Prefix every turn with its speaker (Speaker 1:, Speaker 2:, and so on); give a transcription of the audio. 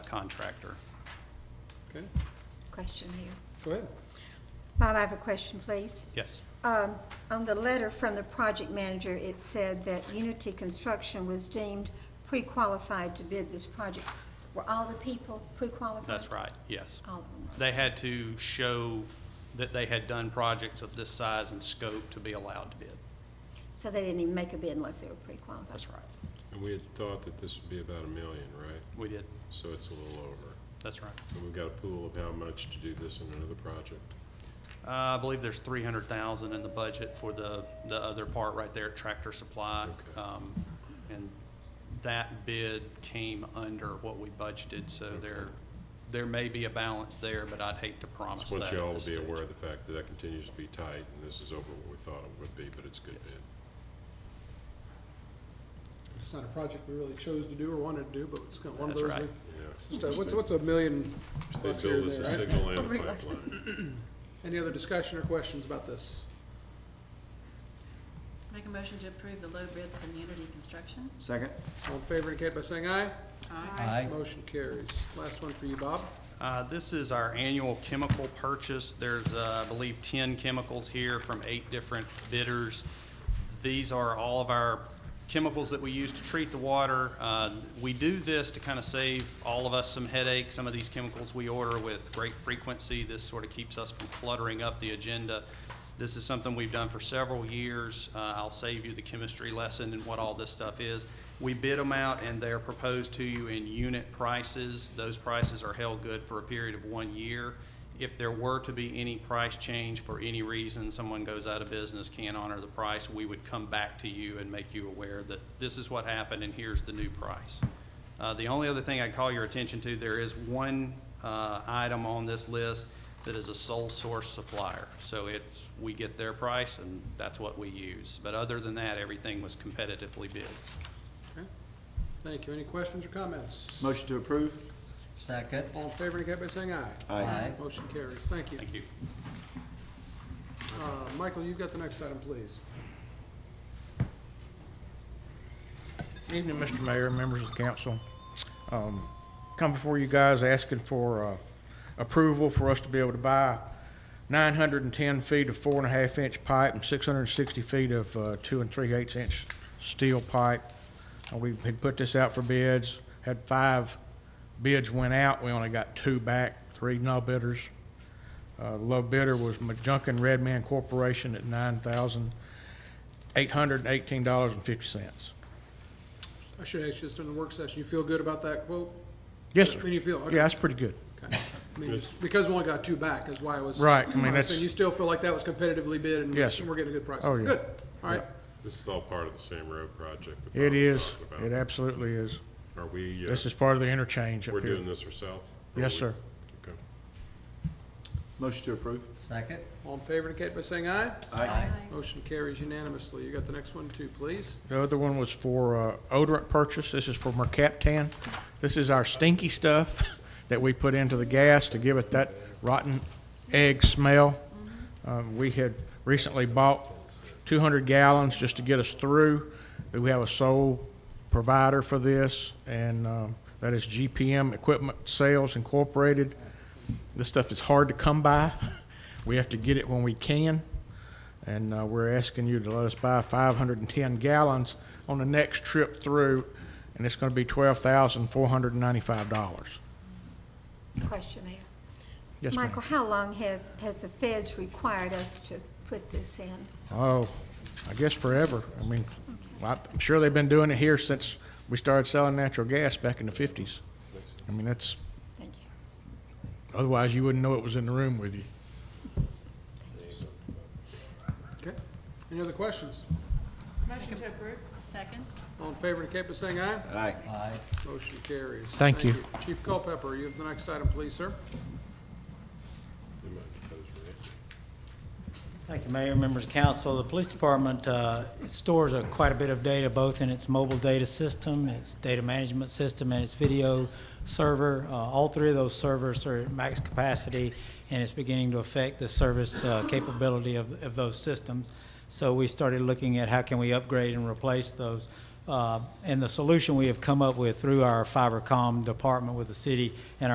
Speaker 1: contractor.
Speaker 2: Okay,
Speaker 3: Question here.
Speaker 2: go ahead.
Speaker 3: Bob, I have a question, please.
Speaker 1: Yes.
Speaker 3: Um, On the letter from the project manager, it said that Unity Construction was deemed pre-qualified to bid this project. Were all the people pre-qualified?
Speaker 1: That's right, yes.
Speaker 3: All of them. were.
Speaker 1: They had to show that they had done projects of this size and scope to be allowed to bid.
Speaker 3: So they didn't even make a bid unless they were pre-qualified?
Speaker 1: That's right.
Speaker 2: And we had thought that this would be about a million, right?
Speaker 1: We did.
Speaker 2: So it's a little over.
Speaker 1: That's right.
Speaker 2: And we've got a pool of how much to do this and another project.
Speaker 1: Uh, I believe there's three hundred thousand in the budget for the, the other part right there, Tractor Supply.
Speaker 2: Okay.
Speaker 1: Um, and that bid came under what we budgeted, so there, there may be a balance there, but I'd hate to promise
Speaker 2: Just
Speaker 1: that
Speaker 2: want
Speaker 1: at
Speaker 2: you all
Speaker 1: this
Speaker 2: to be
Speaker 1: stage.
Speaker 2: aware of the fact that that continues to be tight, and this is over what we thought it would be, but it's a good bid.
Speaker 4: It's not a project we really chose to do or wanted to do, but it's got one of
Speaker 1: That's
Speaker 4: those.
Speaker 1: right.
Speaker 4: we-
Speaker 2: Yeah.
Speaker 4: just a- What's, what's a million
Speaker 2: They
Speaker 4: bucks here
Speaker 2: build
Speaker 4: and
Speaker 2: us a
Speaker 4: there, right?
Speaker 2: signal and a
Speaker 3: Right.
Speaker 2: pipeline.
Speaker 4: Any other discussion or questions about this?
Speaker 5: Make a motion to approve the low bid from Unity Construction.
Speaker 6: Second?
Speaker 4: All in favor indicate by saying aye.
Speaker 6: Aye.
Speaker 4: Motion carries. Last one for you, Bob.
Speaker 1: Uh, This is our annual chemical purchase. There's, uh, I believe, 10 chemicals here from eight different bidders. These are all of our chemicals that we use to treat the water. Uh, We do this to kind of save all of us some headaches. Some of these chemicals we order with great frequency. This sort of keeps us from cluttering up the agenda. This is something we've done for several years. Uh, I'll save you the chemistry lesson and what all this stuff is. We bid them out and they're proposed to you in unit prices. Those prices are held good for a period of one year. If there were to be any price change for any reason, someone goes out of business, can't honor the price, we would come back to you and make you aware that this is what happened and here's the new price. Uh, The only other thing I'd call your attention to, there is one uh, item on this list that is a sole source supplier. So it's, we get their price and that's what we use. But other than that, everything was competitively bid.
Speaker 4: Okay. Thank you. Any questions or comments?
Speaker 6: Motion to approve?
Speaker 7: Second.
Speaker 4: All in favor indicate by saying aye.
Speaker 7: Aye.
Speaker 4: Motion carries. Thank you.
Speaker 1: Thank you.
Speaker 4: Uh, Michael, you've got the next item, please.
Speaker 8: Evening, Mr. Mayor, members of the council. Um, Come before you guys asking for uh, approval for us to be able to buy 910 feet of four and a half inch pipe and 660 feet of uh, two and three eighths inch steel pipe. Uh, We had put this out for bids, had five bids went out, we only got two back, three no bidders. Uh, Low bidder was Majunkin Redman Corporation at $9,818.50.
Speaker 4: I should ask you this during the work session. You feel good about that quote?
Speaker 8: Yes,
Speaker 4: I
Speaker 8: sir.
Speaker 4: mean, you feel, okay.
Speaker 8: Yeah, that's pretty good.
Speaker 2: Oh,
Speaker 4: Okay. I mean, just because we only got two back is why I was.
Speaker 8: Right, I mean,
Speaker 4: why was
Speaker 8: that's-
Speaker 4: saying You still feel like that was competitively bid and
Speaker 8: Yes, sir.
Speaker 4: we're getting a good price?
Speaker 8: Oh, yeah.
Speaker 4: Good, all right.
Speaker 2: This is all part of the same road project. that Bob
Speaker 8: It
Speaker 2: was
Speaker 8: is.
Speaker 2: talking
Speaker 8: It
Speaker 2: about.
Speaker 8: absolutely is.
Speaker 2: Are we, uh,
Speaker 8: This is part of the interchange
Speaker 2: we're
Speaker 8: up here.
Speaker 2: doing this ourselves?
Speaker 8: Yes, sir.
Speaker 2: Okay.
Speaker 6: Motion to approve?
Speaker 7: Second.
Speaker 4: All in favor indicate by saying aye.
Speaker 6: Aye.
Speaker 4: Motion carries unanimously. You got the next one too, please?
Speaker 8: The other one was for uh, odorant purchase. This is for mercaptan. This is our stinky stuff that we put into the gas to give it that rotten egg smell. Um, We had recently bought 200 gallons just to get us through. We have a sole provider for this, and um, that is GPM Equipment Sales Incorporated. This stuff is hard to come by. We have to get it when we can. And uh, we're asking you to let us buy 510 gallons on the next trip through, and it's going to be $12,495.
Speaker 3: Question, Mayor.
Speaker 8: Yes, ma'am.
Speaker 3: Michael, how long have, have the feds required us to put this in?
Speaker 8: Oh, I guess forever. I mean, well, I'm sure they've been doing it here since we started selling natural gas back in the 50s. I mean, that's,
Speaker 3: Thank you.
Speaker 8: otherwise you wouldn't know it was in the room with you.
Speaker 4: Okay. Any other questions?
Speaker 5: Motion to approve. Second.
Speaker 4: All in favor indicate by saying aye.
Speaker 6: Aye.
Speaker 7: Aye.
Speaker 4: Motion carries.
Speaker 8: Thank you.
Speaker 4: Chief Culpepper, you have the next item, please, sir.
Speaker 2: You might propose, Rick.
Speaker 9: Thank you, Mayor, members of council. The police department uh, stores a- quite a bit of data, both in its mobile data system, its data management system, and its video server. Uh, All three of those servers are at max capacity, and it's beginning to affect the service uh, capability of of those systems. So we started looking at how can we upgrade and replace those. Uh, Uh, And the solution we have come up with through our fibercom department with the city and our